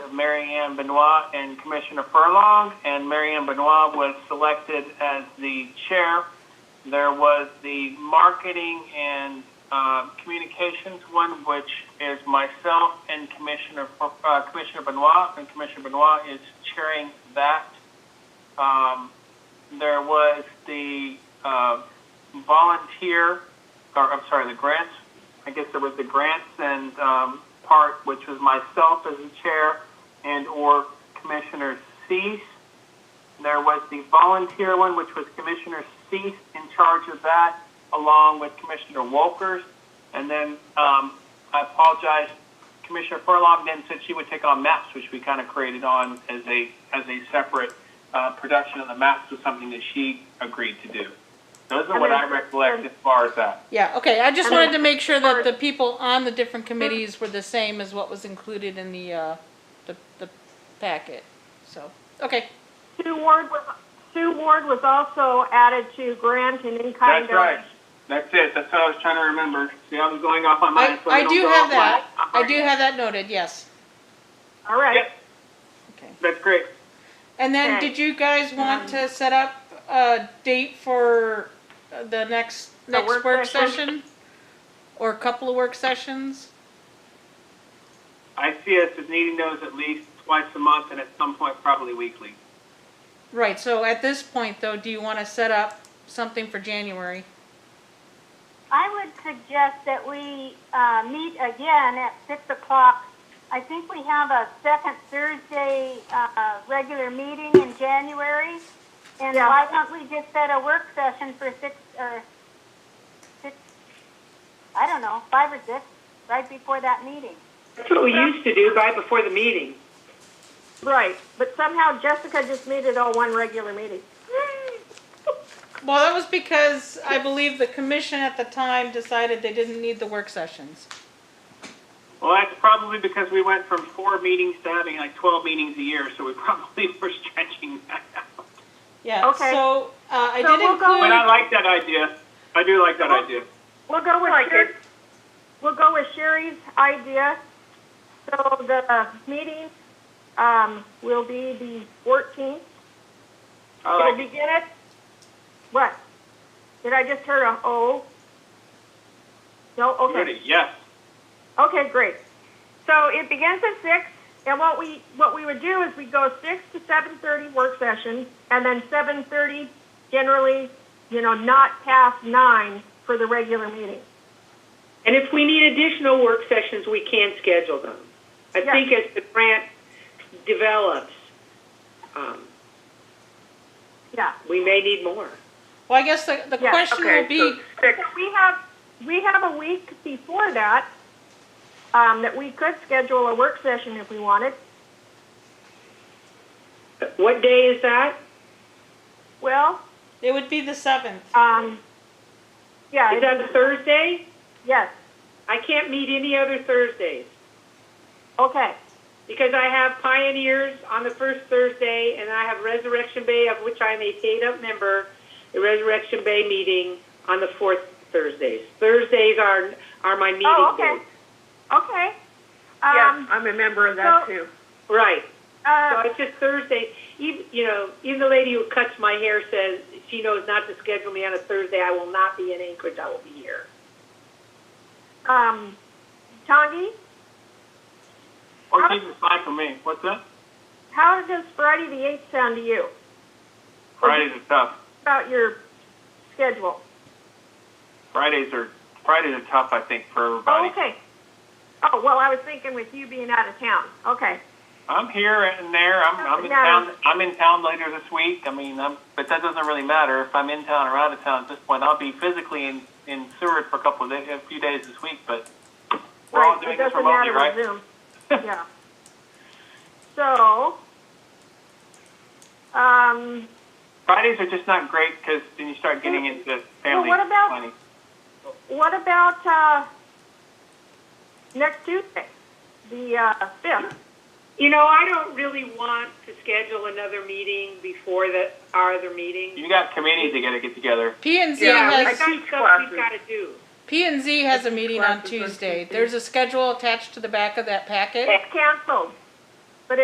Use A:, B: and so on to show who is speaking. A: of Mary Ann Benoit and Commissioner Furlong, and Mary Ann Benoit was selected as the chair. There was the marketing and uh, communications one, which is myself and Commissioner, Fur- uh, Commissioner Benoit, and Commissioner Benoit is chairing that. Um, There was the uh, volunteer, or I'm sorry, the grants I guess there was the grants and um, part, which was myself as the chair and or Commissioner Cease. There was the volunteer one, which was Commissioner Cease in charge of that, along with Commissioner Wolkers. And then um, I apologize, Commissioner Furlong then said she would take on maps, which we kind of created on as a as a separate uh, production of the maps was something that she agreed to do. Those are what I recollect as far as that.
B: Yeah, okay, I just wanted to make sure that
C: Or-
B: the people on the different committees were the same as what was included in the, uh, the, the packet, so, okay.
C: Sue Ward was, Sue Ward was also added to grant and in-kind.
A: That's right. That's it. That's what I was trying to remember. See, I was going off on mine.
B: I,
A: so
B: I
A: don't
B: do
A: go
B: have
A: off
B: that,
A: mine.
B: I do have that noted, yes.
C: All right.
A: Yep,
B: Okay.
A: that's great.
B: And then,
C: Okay.
B: did you guys want to set up a date for uh, the next,
C: The
B: next
C: work
B: work
C: session?
B: session? Or a couple of work sessions?
A: I see us as needing those at least twice a month and at some point probably weekly.
B: Right, so at this point, though, do you wanna set up something for January?
D: I would suggest that we uh, meet again at 6 o'clock. I think we have a second Thursday uh, regular meeting in January. And
C: Yeah.
D: why don't we just set a work session for 6, or 6, I don't know, 5 or 6, right before that meeting?
E: That's what we used to do right before the meeting.
C: Right, but somehow Jessica just made it all one regular meeting.
B: Well, that was because I believe the commission at the time decided they didn't need the work sessions.
A: Well, that's probably because we went from four meetings to having like 12 meetings a year, so we probably were stretching that out.
B: Yeah,
C: Okay.
B: so, uh, I
C: So
B: did
C: we'll go
A: But I
B: include,
A: like that idea. I do like that idea.
C: We'll go with
E: like
C: Sherry, we'll go with Sherry's idea. So the meeting, um, will be the fourteenth.
A: I
C: It'll
A: like it.
C: begin at, what? Did I just hear a oh? No, okay.
A: Ready? Yes.
C: Okay, great. So it begins at six, and what we, what we would do is we go six to seven thirty work session, and then seven thirty generally, you know, not past nine for the regular meeting.
E: And if we need additional work sessions, we can schedule them. I
C: Yeah.
E: think as the grant develops, um,
C: Yeah.
E: we may need more.
B: well, I guess the, the
C: Yeah,
B: question will be,
C: So we have, we have a week before that, um, that we could schedule a work session if we wanted.
E: What day is that?
C: Well,
B: it would be the seventh.
C: um, yeah,
E: Is
C: it-
E: that a Thursday?
C: yes,
E: I can't meet any other Thursdays
C: okay,
E: because I have Pioneers on the first Thursday and I have Resurrection Bay, of which I'm a paid-up member, the Resurrection Bay meeting on the fourth Thursdays. Thursdays are, are my meeting days.
C: Oh, okay. okay.
F: Yeah,
C: Um,
F: I'm a member of that
C: so-
F: too.
E: Right. So
C: uh,
E: it's just Thursday. Even, you know, even the lady who cuts my hair says she knows not to schedule me on a Thursday. I will not be in Anchorage. I will be here.
C: um, Tongi,
A: Or keep it fine for me. What's that?
C: how does Friday the eighth sound to you
A: Fridays are tough.
C: about your schedule?
A: Fridays are Fridays are tough, I think, for everybody.
C: Oh, okay. Oh, well, I was thinking with you being out of town. Okay.
A: I'm here and there. I'm, I'm in
C: Yeah.
A: town. I'm in town later this week. I mean, I'm, but that doesn't really matter if I'm in town or out of town at this point. I'll be physically in in Seward for a couple of days, a few days this week, but we're all
C: Right,
A: doing
C: it
A: this
C: doesn't
A: remotely,
C: matter
A: right?
C: with Zoom. Yeah. So, um,
A: Fridays are just not great because then you start getting into family
C: what about-
A: planning.
C: what about, uh, next Tuesday, the, uh, fifth?
E: You know, I don't really want to schedule another meeting before the, our other meeting.
A: You got committees that got to get together.
B: P and Z
F: Yeah,
E: I
F: I
B: has,
E: got
F: teach
E: stuff
F: classes.
E: we've got to do.
B: P and Z has a meeting on
F: Classes on
B: Tuesday.
F: Tuesday.
B: There's a schedule attached to the back of that packet.
C: It's canceled.